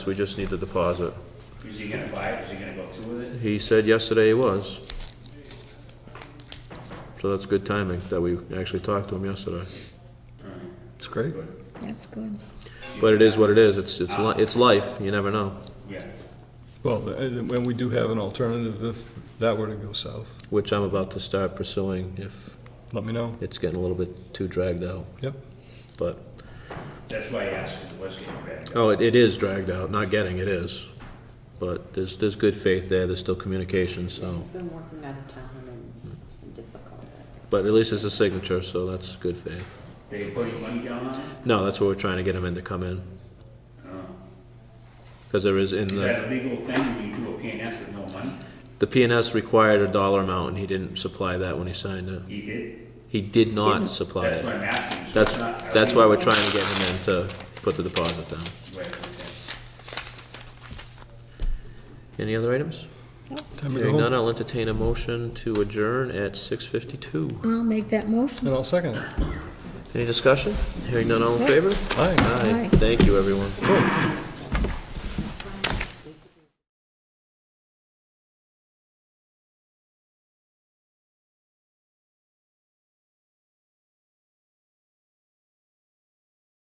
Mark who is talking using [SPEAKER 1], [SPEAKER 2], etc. [SPEAKER 1] We just need the deposit.
[SPEAKER 2] Is he gonna buy it? Is he gonna go through with it?
[SPEAKER 1] He said yesterday he was. So that's good timing that we actually talked to him yesterday.
[SPEAKER 3] It's great.
[SPEAKER 4] That's good.
[SPEAKER 1] But it is what it is. It's, it's, li- it's life. You never know,
[SPEAKER 2] Yeah.
[SPEAKER 3] Well, and when we do have an alternative, if that were to go south,
[SPEAKER 1] which I'm about to start pursuing if
[SPEAKER 3] let me know.
[SPEAKER 1] it's getting a little bit too dragged out.
[SPEAKER 3] Yep.
[SPEAKER 1] But,
[SPEAKER 2] That's why I asked if it was getting ready.
[SPEAKER 1] oh, it, it is dragged out. Not getting, it is. But there's, there's good faith there. There's still communication, so.
[SPEAKER 5] He's been working out of town and it's been difficult.
[SPEAKER 1] But at least it's a signature, so that's good faith.
[SPEAKER 2] They put money down on it?
[SPEAKER 1] No, that's what we're trying to get him in to come in.
[SPEAKER 2] Oh.
[SPEAKER 1] Because there is in the.
[SPEAKER 2] Is that a legal thing when you do a PNS with no money?
[SPEAKER 1] The PNS required a dollar amount, and he didn't supply that when he signed it.
[SPEAKER 2] He did?
[SPEAKER 1] He did not supply
[SPEAKER 2] That's what
[SPEAKER 1] it.
[SPEAKER 2] I'm asking. so
[SPEAKER 1] That's,
[SPEAKER 2] it's not a
[SPEAKER 1] that's why we're
[SPEAKER 2] legal-
[SPEAKER 1] trying to get him in to put the deposit down.
[SPEAKER 2] Right, okay.
[SPEAKER 1] Any other items?
[SPEAKER 3] Time to go
[SPEAKER 1] Hearing none,
[SPEAKER 3] home.
[SPEAKER 1] I'll entertain a motion to adjourn at six fifty-two.
[SPEAKER 4] I'll make that motion.
[SPEAKER 3] And I'll second it.
[SPEAKER 1] Any discussion? Hearing none, all in favor?
[SPEAKER 3] Aye.
[SPEAKER 1] Aye. Thank you, everyone.